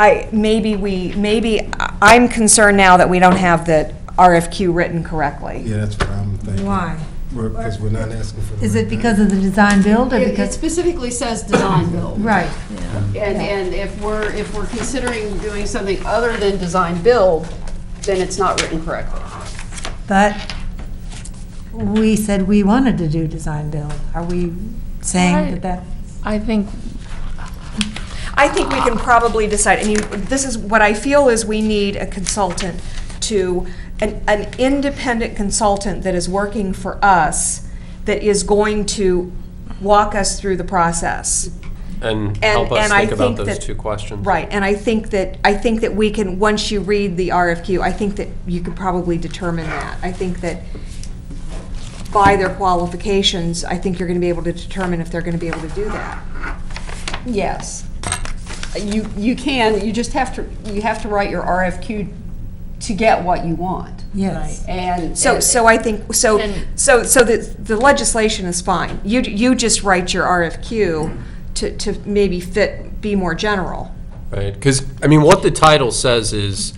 I, maybe we, maybe, I- I'm concerned now that we don't have the RFQ written correctly. Yeah, that's what I'm thinking. Why? Because we're not asking for. the Is it right because of the design build or It it because, specifically says design build. right, And, and if we're, if we're considering doing something other than design build, then it's not written correctly. but we said we wanted to do design build. Are we saying that that, I think, I think we can probably decide, and you, this is, what I feel is we need a consultant to, an, an independent consultant that is working for us, that is going to walk us through the process. And And- help us and I think about think those that- two questions. Right, and I think that, I think that we can, once you read the RFQ, I think that you could probably determine that. I think that by their qualifications, I think you're going to be able to determine if they're going to be able to do that. Yes. You, you can, you just have to, you have to write your RFQ to get what you want. yes. And. So, so I think, so, And- so, so the, the legislation is fine. You, you just write your RFQ to, to maybe fit, be more general. Right, because, I mean, what the title says is,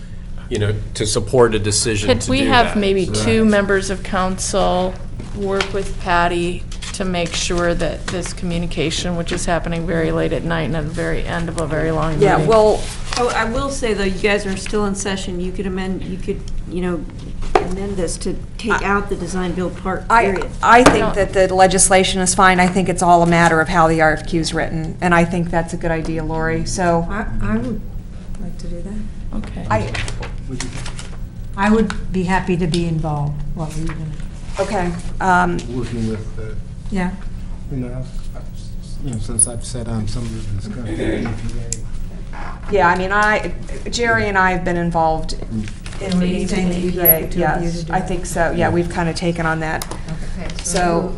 you know, to support a decision to could do we have that. maybe two Right. members of council work with Patty to make sure that this communication, which is happening very late at night and at the very end of a very long meeting. Yeah, well, Oh, I will say, though, you guys are still in session, you could amend, you could, you know, amend this to take out the design-build part, I, period. I I think don't- that the legislation is fine. I think it's all a matter of how the RFQ is written, and I think that's a good idea, Lori, so. I, I would like to do that. Okay. I, I would be happy to be involved. What were you gonna, okay, um, Working with, uh, yeah, you know, I've- I've- you know, since I've sat on some of this E discussion, EPA, yeah, I mean, I, Jerry and I have been involved in meetings with Anything that the you'd like the two EPA, of you yes. to do. I think so, yeah, we've kind of taken on that, so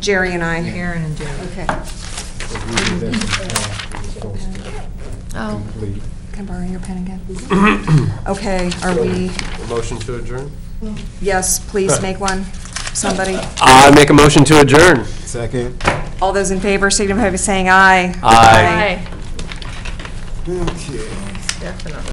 Jerry and I. Karen and Jerry. Okay, but really that's the path we're supposed to Oh, complete. can I borrow your pen again? Okay, are we, A Motion to adjourn? yes, please make one, somebody. I make a motion to adjourn. Second. All those in favor, signify by saying aye. Aye. hi, Okay. definitely.